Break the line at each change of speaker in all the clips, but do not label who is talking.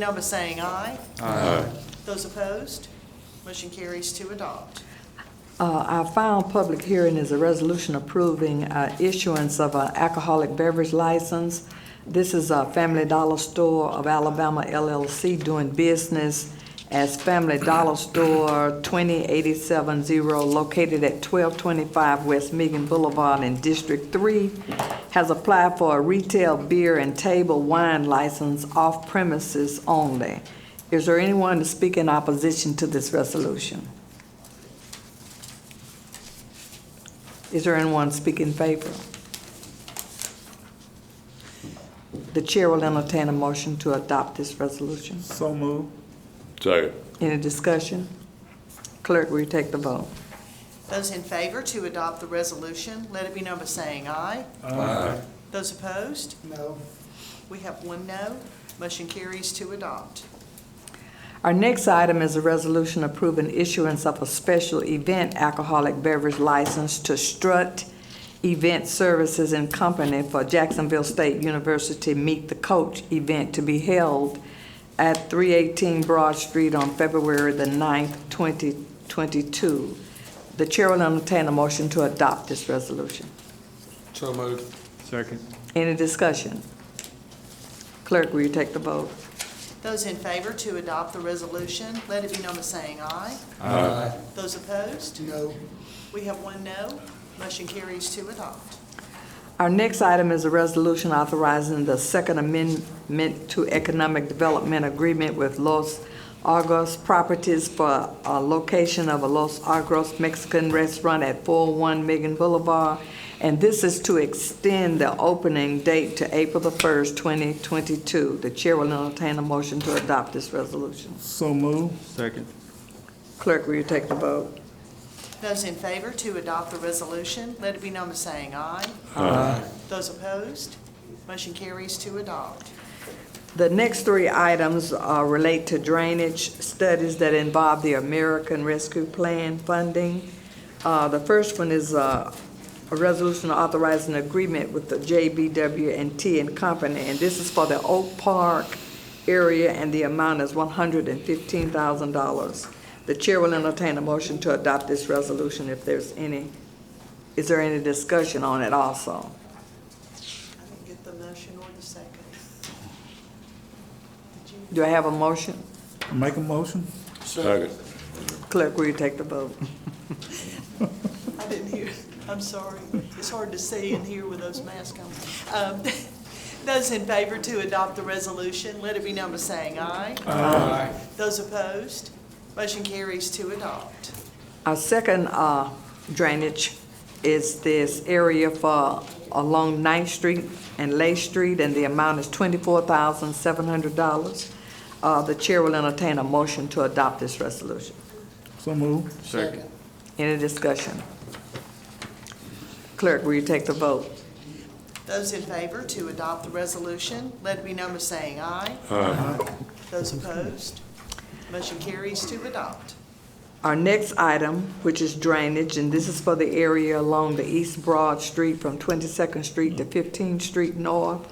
now by saying aye. Aye. Those opposed, motion carries to adopt.
Uh, Our final public hearing is a resolution approving uh, issuance of an alcoholic beverage license. This is a Family Dollar Store of Alabama LLC doing business as Family Dollar Store 20870 located at 1225 West Meagan Boulevard in District 3, has applied for a retail beer and table wine license off premises only. Is there anyone to speak in opposition to this resolution? Is there anyone speaking in favor? The chair will entertain a motion to adopt this resolution.
So move.
Second.
Any discussion? Clerk, will you take the vote?
Those in favor to adopt the resolution, let it be known by saying aye.
Aye.
Those opposed? No. We have one no, motion carries to adopt.
Our next item is a resolution approving issuance of a special event alcoholic beverage license to Strut Event Services and Company for Jacksonville State University Meet the Coach event to be held at 318 Broad Street on February the 9th, 2022. The chair will entertain a motion to adopt this resolution.
So moved.
Second.
Any discussion? Clerk, will you take the vote?
Those in favor to adopt the resolution, let it be known by saying aye.
Aye.
Those opposed,
No.
we have one no, motion carries to adopt.
Our next item is a resolution authorizing the Second Amendment to Economic Development Agreement with Los Argos Properties for a location of a Los Argos Mexican restaurant at 401 Megan Boulevard. And this is to extend the opening date to April the 1st, 2022. The chair will entertain a motion to adopt this resolution.
So move. Second.
Clerk, will you take the vote?
Those in favor to adopt the resolution, let it be known by saying aye.
Aye.
Those opposed, motion carries to adopt.
The next three items uh, relate to drainage studies that involve the American Rescue Plan funding. Uh, The first one is uh, a resolution authorizing agreement with the JBW and T and Company, and this is for the Oak Park area, and the amount is $115,000. The chair will entertain a motion to adopt this resolution if there's any, is there any discussion on it also?
I didn't get the motion or the second. Did you?
Do I have a motion?
Make a motion?
Second.
Clerk, will you take the vote?
I didn't hear, I'm sorry. It's hard to see and hear with those masks on. Um, Those in favor to adopt the resolution, let it be known by saying aye.
Aye.
Those opposed, motion carries to adopt.
Our second uh, drainage is this area for along Ninth Street and Lay Street, and the amount is twenty-four thousand seven hundred dollars. Uh, The chair will entertain a motion to adopt this resolution.
So move.
Second.
Any discussion? Clerk, will you take the vote?
Those in favor to adopt the resolution, let it be known by saying aye. Those opposed, motion carries to adopt.
Our next item, which is drainage, and this is for the area along the East Broad Street from 22nd Street to 15th Street North,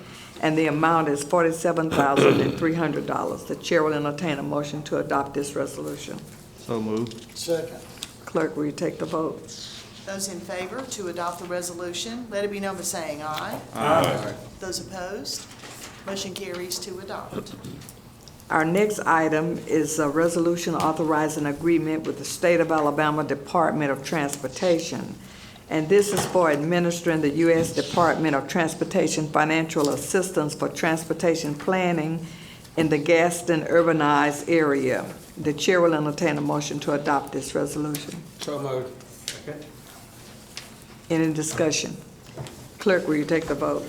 and the amount is $47,300. The chair will entertain a motion to adopt this resolution.
So move.
Second.
Clerk, will you take the vote?
Those in favor to adopt the resolution, let it be known by saying aye.
Aye.
Those opposed, motion carries to adopt.
Our next item is a resolution authorizing agreement with the State of Alabama Department of Transportation. And this is for administering the U.S. Department of Transportation financial assistance for transportation planning in the Gaston urbanized area. The chair will entertain a motion to adopt this resolution.
So moved.
Any discussion? Clerk, will you take the vote?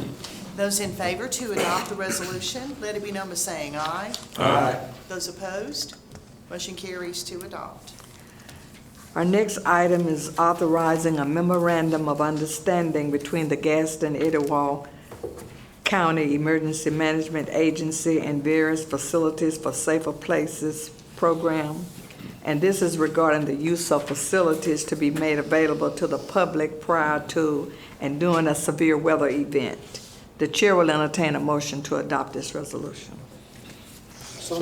Those in favor to adopt the resolution, let it be known by saying aye.
Aye.
Those opposed, motion carries to adopt.
Our next item is authorizing a memorandum of understanding between the Gaston Idawal County Emergency Management Agency and various facilities for safer places program. And this is regarding the use of facilities to be made available to the public prior to and during a severe weather event. The chair will entertain a motion to adopt this resolution.